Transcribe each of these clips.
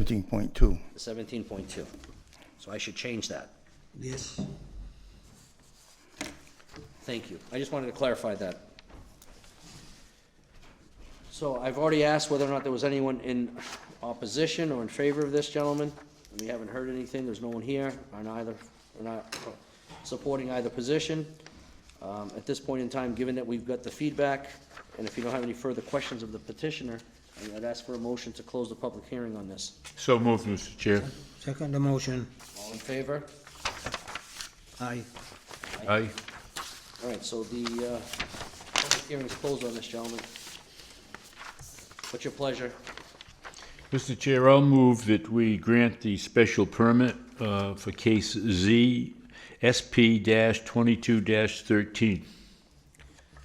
Seventeen point two. seventeen point two. So I should change that. Yes. Thank you. I just wanted to clarify that. So I've already asked whether or not there was anyone in opposition or in favor of this, gentlemen. We haven't heard anything. There's no one here on either, or not supporting either position. Um, at this point in time, given that we've got the feedback, and if you don't have any further questions of the petitioner, I'd ask for a motion to close the public hearing on this. So moved, Mr. Chair. Second motion, All in favor? aye. Aye. All right, so the, uh, public hearing's closed on this, gentlemen. What's your pleasure? Mr. Chair, I'll move that we grant the special permit uh, for case Z SP twenty-two thirteen.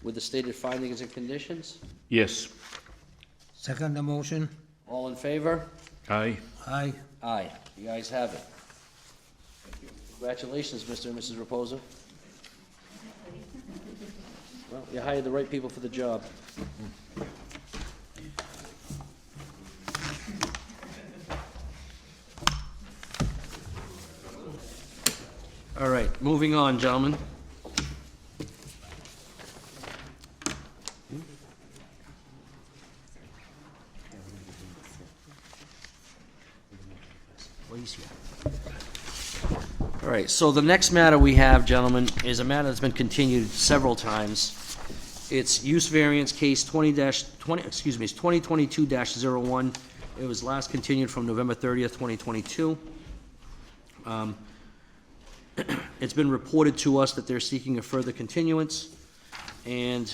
With the stated findings and conditions? Yes. Second motion, All in favor? Aye. aye. Aye. You guys have it. Congratulations, Mr. and Mrs. Reposa. Well, you hired the right people for the job. All right, moving on, gentlemen. All right, so the next matter we have, gentlemen, is a matter that's been continued several times. It's use variance case twenty twenty, excuse me, it's twenty twenty-two one It was last continued from November thirtieth, twenty twenty-two. Um, It's been reported to us that they're seeking a further continuance, and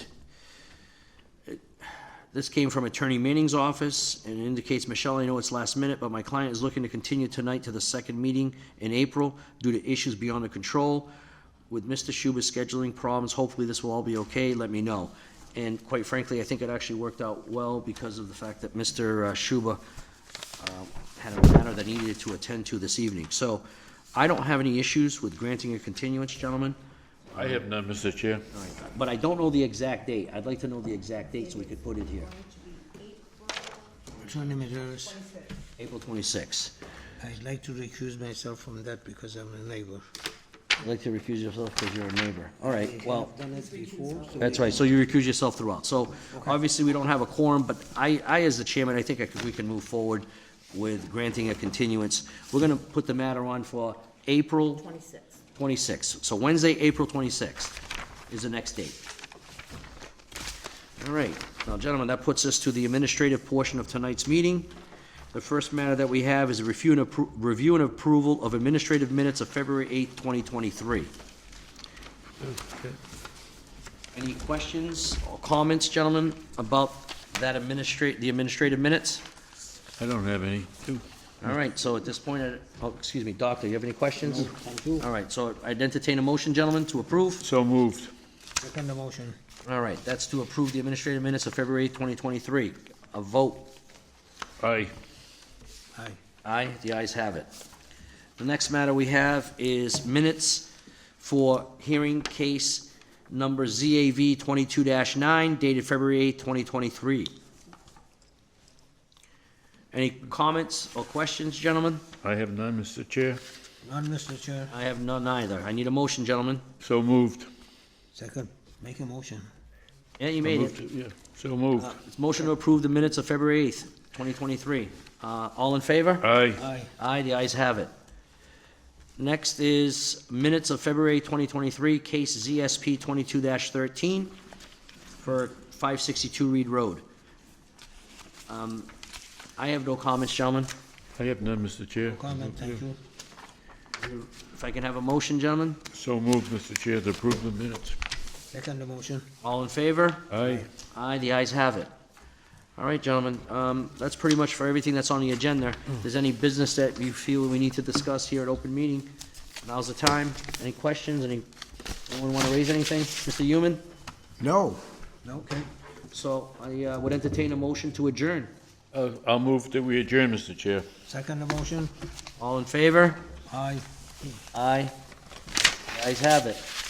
this came from Attorney Manning's office, and it indicates, Michelle, I know it's last minute, but my client is looking to continue tonight to the second meeting in April due to issues beyond her control. With Mr. Schuba's scheduling problems, hopefully this will all be okay, let me know. And quite frankly, I think it actually worked out well because of the fact that Mr. Schuba uh, had a matter that he needed to attend to this evening. So I don't have any issues with granting a continuance, gentlemen, I have none, Mr. Chair. but I don't know the exact date. I'd like to know the exact date so we could put it here. Attorney Metalis, April 26th. I'd like to recuse myself from that because I'm a neighbor. I'd like to recuse yourself because you're a neighbor. All right, well, I've done it before, so that's right, so you recuse yourself throughout. So obviously, we don't have a quorum, but I, I, as the chairman, I think I could- we can move forward with granting a continuance. We're going to put the matter on for April 26. 26th. So Wednesday, April 26th is the next date. All right. Now, gentlemen, that puts us to the administrative portion of tonight's meeting. The first matter that we have is a review and appro- review and approval of administrative minutes of February 8th, 2023. Any questions or comments, gentlemen, about that administrate, the administrative minutes? I don't have any. All right, so at this point, I- oh, excuse me, Doctor, you have any questions? All right, so I'd entertain a motion, gentlemen, to approve. So moved. second motion, All right, that's to approve the administrative minutes of February 2023. A vote, Aye. aye. aye, the ayes have it. The next matter we have is minutes for hearing case number ZAV 22-9 dated February 8, 2023. Any comments or questions, gentlemen? I have none, Mr. Chair. None, Mr. Chair. I have none either. I need a motion, gentlemen. So moved. Second, make a motion. Yeah, you made it. Moved Yeah. So moved. It's motion to approve the minutes of February 8th, 2023. Uh, All in favor? Aye. Aye. Aye, the ayes have it. Next is minutes of February 2023, case ZSP 22-13 for 562 Reed Road. Um, I have no comments, gentlemen. I have none, Mr. Chair. Comment, thank you. If I can have a motion, gentlemen? So moved, Mr. Chair, to approve the minutes. Second motion, All in favor? Aye. Aye, the ayes have it. All right, gentlemen, um, that's pretty much for everything that's on the agenda. If there's any business that you feel we need to discuss here at open meeting, now's the time. Any questions, any, anyone wanna raise anything? Mr. Human? No. okay. So I, uh, would entertain a motion to adjourn. Uh, I'll move that we adjourn, Mr. Chair. Second motion, All in favor? aye. Aye. The ayes have it.